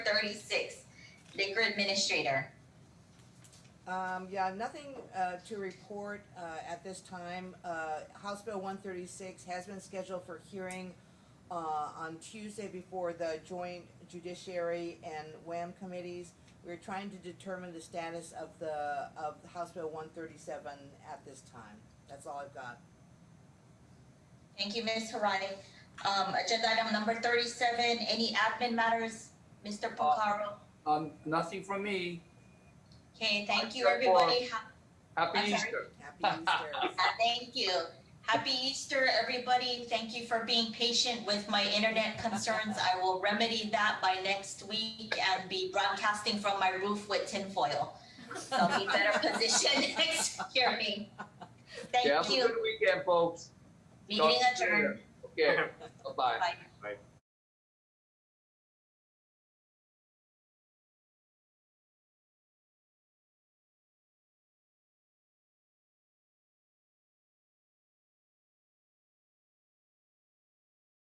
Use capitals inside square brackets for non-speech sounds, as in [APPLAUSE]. thirty-six, liquor administrator. Um, yeah, nothing, uh, to report, uh, at this time. Uh, House Bill one thirty-six has been scheduled for hearing, uh, on Tuesday before the joint judiciary and WAM committees. We're trying to determine the status of the, of House Bill one thirty-seven at this time. That's all I've got. Thank you, Ms. Harani. Um, agenda item number thirty-seven, any admin matters, Mr. Pocaro? Um, nothing from me. Okay, thank you, Except for- everybody. Ha- I'm Happy sorry? Easter. Happy Easter. Uh, Thank you. Happy Easter, everybody. Thank you for being patient with my internet concerns. I will remedy that by next week and be broadcasting from my roof with tinfoil. So [LAUGHS] I'll be [LAUGHS] better positioned [LAUGHS] next hearing. Yeah, Thank have a you. good weekend, folks. Meeting Talk to you adjourned. later. Okay, bye-bye. Bye.